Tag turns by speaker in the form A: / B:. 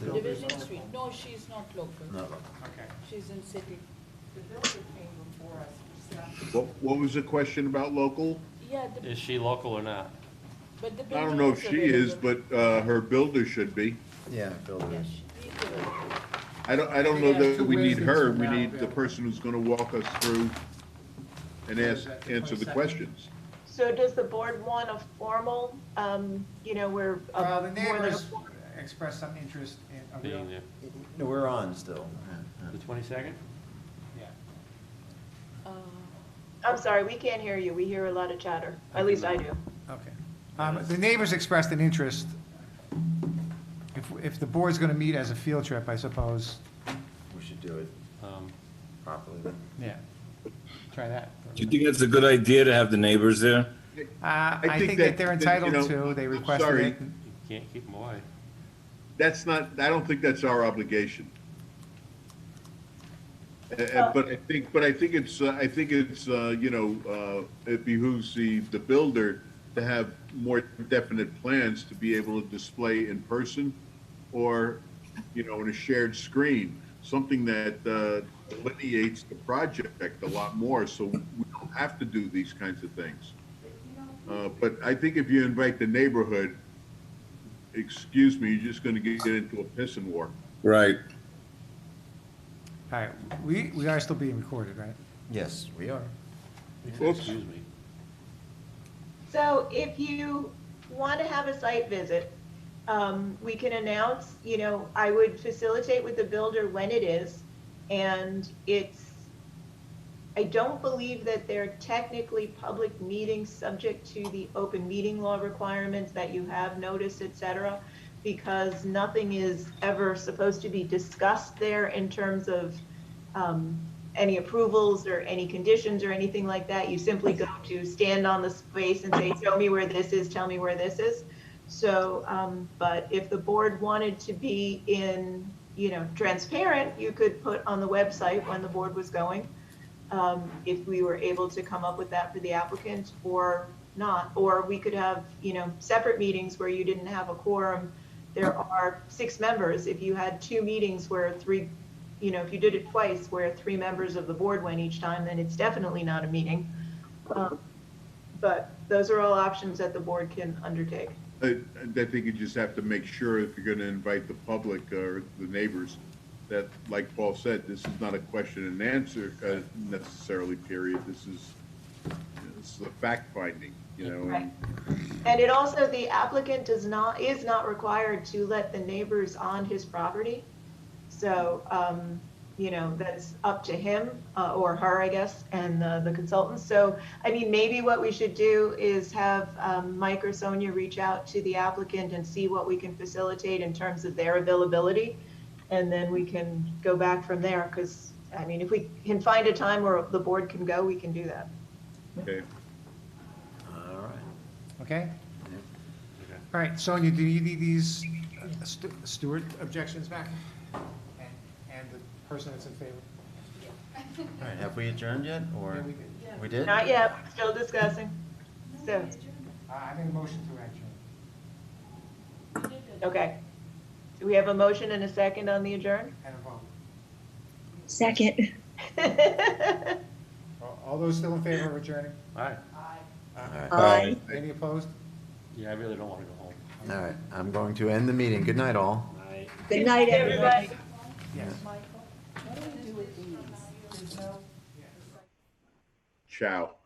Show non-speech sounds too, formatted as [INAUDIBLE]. A: She's
B: Virgin
A: local.
B: Street, no, she's not local,
A: No.
C: Okay.
B: she's in city.
D: The builder came before us, we stopped.
E: What, what was the question about local?
B: Yeah, the,
F: Is she local or not?
B: but the
E: I
B: building
E: don't know if
B: is
E: she is, but,
B: available.
E: uh, her builder should be.
A: Yeah, building
B: Yes,
A: is.
B: she is available.
E: I don't, I don't know that we need her, we
C: Yeah.
E: need the person who's gonna walk us through and ask, answer the questions.
G: So does the board want a formal, um, you know, where? a-
C: Well, Uh, the
G: more than a
C: neighbors expressed some interest in, oh, a real-
F: Being there,
A: No, we're on still.
F: the twenty-second?
C: yeah.
B: Uh,
G: I'm sorry, we can't hear you. We hear a lot of chatter. At least I do.
C: Okay. Um, The neighbors expressed an interest. If, if the board's going to meet as a field trip, I suppose,
A: We should do it
F: Um,
A: properly then.
C: yeah, try that.
H: Do you think that's a good idea to have the neighbors there?
C: Uh, I think that they're
E: that, you
C: entitled
E: know,
C: to, they
E: I'm
C: requested
E: sorry,
C: it.
F: you can't keep them away.
E: That's not, I don't think that's our obligation. Uh,
G: Oh.
E: uh, But I think, but I think it's, uh, I think it's, uh, you know, uh, it behooves the, the builder to have more definite plans to be able to display in person or, you know, in a shared screen, something that uh, delineates the project a lot more, so we don't have to do these kinds of things. Uh, But I think if you invite the neighborhood, excuse me, you're just gonna get get into a pissing war.
H: Right.
C: All right, we, we are still being recorded, right?
A: Yes, we are.
E: Oops.
F: Excuse me.
G: So if you want to have a site visit, um, we can announce, you know, I would facilitate with the builder when it is. And it's, I don't believe that they're technically public meetings subject to the open meeting law requirements that you have notice, et cetera, because nothing is ever supposed to be discussed there in terms of, um, any approvals or any conditions or anything like that. You simply go to stand on the space and say, show me where this is, tell me where this is. So, um, but if the board wanted to be in, you know, transparent, you could put on the website when the board was going. Um, if we were able to come up with that for the applicant or not, or we could have, you know, separate meetings where you didn't have a quorum. There are six members. If you had two meetings where three you know, if you did it twice where three members of the board went each time, then it's definitely not a meeting. Um, But those are all options that the board can undertake.
E: I, I think you just have to make sure if you're gonna invite the public or the neighbors, that, like Paul said, this is not a question and answer uh, necessarily, period. This is, this is a fact finding, you know? and-
G: And it also, the applicant does not, is not required to let the neighbors on his property. So, um, you know, that's up to him, uh, or her, I guess, and uh, the consultant. So, I mean, maybe what we should do is have, um, Mike or Sonia reach out to the applicant and see what we can facilitate in terms of their availability. And then we can go back from there, because, I mean, if we can find a time where the board can go, we can do that.
E: Okay,
A: All right.
C: Okay?
A: Yep.
C: All right, Sonia, do you need these uh, Stu- Stewart objections back? And- And the person that's in favor?
A: All right, have we adjourned yet or?
C: Yeah, we did.
A: We did?
G: Not yet, we're still discussing. So,
C: Uh, I made a motion to adjourn.
G: okay. Do we have a motion and a second on the adjourn? [LAUGHS]
C: and a vote.
I: Second.
C: All- All those still in favor of adjourning?
F: All right,
A: All right, all
I: Aye.
C: Any opposed?
F: yeah, I really don't wanna go home.
A: right. I'm going to end the meeting. Good night, all.
I: Good night, everybody.
G: Everybody.
C: Yes.
E: ciao.